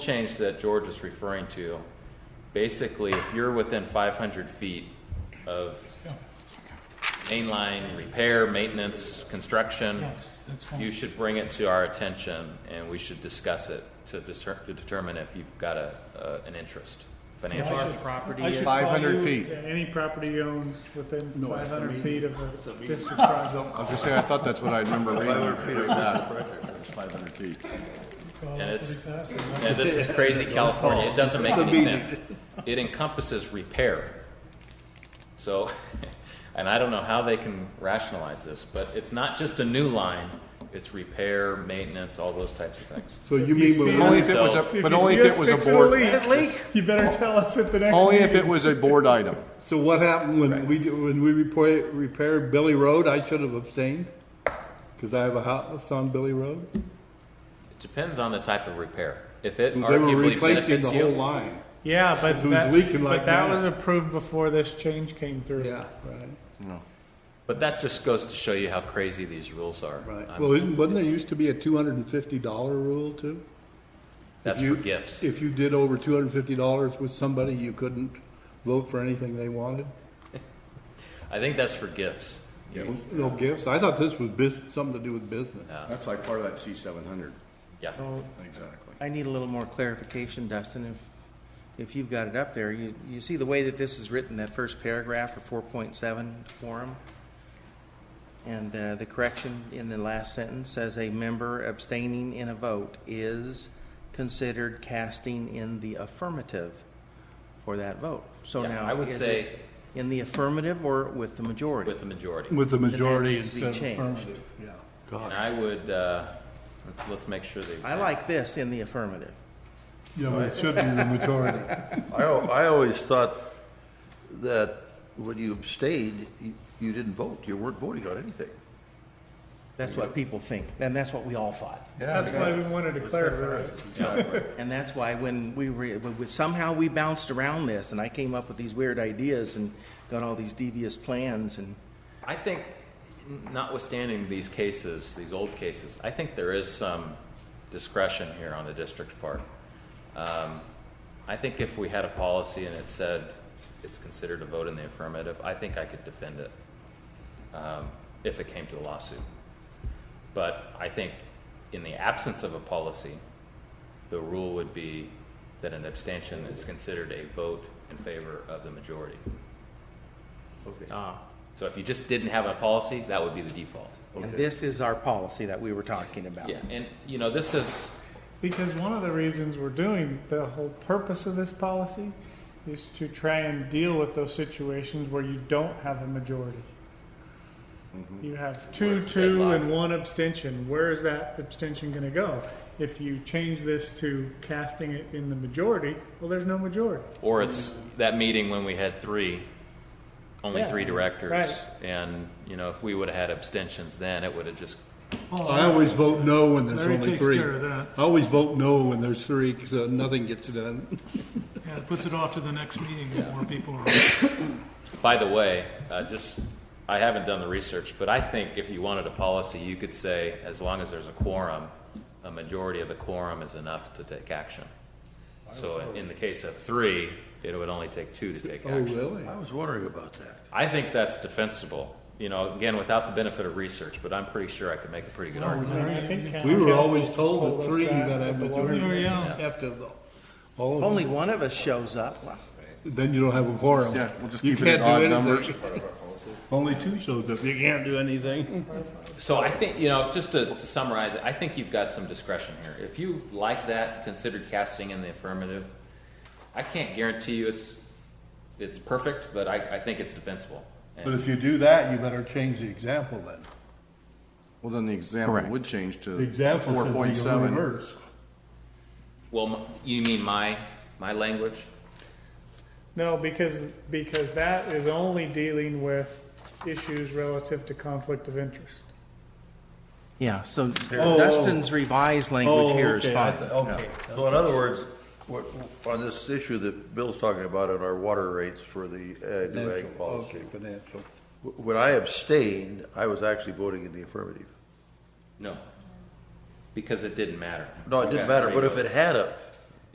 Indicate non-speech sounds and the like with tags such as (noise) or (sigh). change that George is referring to, basically, if you're within 500 feet of mainline repair, maintenance, construction, Yes, that's fine. you should bring it to our attention, and we should discuss it to discer- to determine if you've got a, uh, an interest I financially. should- property I is- should call 500 you- feet. Yeah, any property owned within No, five that's a median. hundred feet of That's a a median. district (laughs) project. I was just saying, I thought that's what I remember reading. 500 feet of Five hundred feet. Call And up it's- uh, pretty fast, and Yeah, this is (laughs) crazy California. It doesn't make any sense. It encompasses repair. So, (laughs) and I don't know how they can rationalize this, but it's not just a new line, it's repair, maintenance, all those types of things. So you mean mean when when Only if it was So- a, If but you only see if us it was a fixing board, leak, You better tell us at the next only if it meeting. was a board item. so what happened when we, do- when we report, repaired Billy Road, I should have abstained? Cause I have a house on Billy Road? It depends on the type of repair. If it They were arguably replacing the benefits whole you, line. Yeah, but Who's that, leaking but like that that? was approved before this change came through. Yeah, right, but that just goes to show you how crazy these rules are. right. I'm- Well, isn't, wasn't there used to be a two hundred and fifty dollar rule too? That's if you- for gifts. If you did over two hundred and fifty dollars with somebody, you couldn't vote for anything they wanted? I think that's for gifts. No gifts? I thought this was bus, something to do with business. That's like part of that C seven hundred. Yeah. Exactly. I need a little more clarification, Dustin, if, if you've got it up there. You, you see the way that this is written, that first paragraph of four point seven quorum? And uh, the correction in the last sentence says a member abstaining in a vote is considered casting in the affirmative for that vote. So Yeah, now, I would is say- it in the affirmative or with the majority? With the majority. With the that majority needs to be instead of changed. affirmative, yeah. And I would, uh, let's, let's make sure they. I like this in the affirmative. Yeah, but it should be the majority. I, al- I always thought that when you abstained, you, you didn't vote. You weren't voting on anything. That's what people think, and that's what we all thought. That's why we wanted to clarify. it. And that's why when we were, when we- somehow we bounced around this, and I came up with these weird ideas and got all these devious plans, and I think, notwithstanding these cases, these old cases, I think there is some discretion here on the district's part. Um, I think if we had a policy and it said it's considered a vote in the affirmative, I think I could defend it um, if it came to a lawsuit. But I think in the absence of a policy, the rule would be that an abstention is considered a vote in favor of the majority. So if you just didn't have a policy, that would be the default. and this is our policy that we were talking about. Yeah, and you know, this is, Because one of the reasons we're doing, the whole purpose of this policy is to try and deal with those situations where you don't have a majority. You have Mm-hmm. Where two, it's two, and deadlocked. one abstention. Where is that abstention gonna go? If you change this to casting it in the majority, well, there's no majority. or it's that meeting when we had three, only Yeah, three directors. right. And, you know, if we would have had abstentions then, it would have just, Oh, I always vote no when there's Larry only takes three. care of that. I always vote no when there's three, because nothing gets done. Yeah, it puts it off to the next meeting if more people (laughs) are. by the way, uh, just, I haven't done the research, but I think if you wanted a policy, you could say, as long as there's a quorum, a majority of the quorum is enough to take action. So in the case of three, it would only take two to take Oh, action. really? I was wondering about that. I think that's defensible. You know, again, without the benefit of research, but I'm pretty sure I could make a pretty good argument. I think county We were council's always told us that three, you that gotta at have the majority. Oh, water- yeah. After the- all of Only them. one of us shows up. Wow. Then you don't have a quorum. Yeah, we'll just You keep it at can't do odd numbers. anything. Only two shows up, you can't do anything. So I think, you know, just to, to summarize it, I think you've got some discretion here. If you like that, consider casting in the affirmative. I can't guarantee you it's, it's perfect, but I, I think it's defensible. But And if you do that, you better change the example then. Well, then the example Correct. would change to The example four says point you go seven. reverse. well, m- you mean my, my language? No, because, because that is only dealing with issues relative to conflict of interest. Yeah, so oh. Dustin's revised language Oh, here is okay, I fine. th- Okay. So in other words, what, on this issue that Bill's talking about on our water rates for the uh, new ag Financial, policy, okay, financial. wh- when I abstained, I was actually voting in the affirmative. No. Because it didn't matter. No, it You didn't got matter, three but if votes. it had a,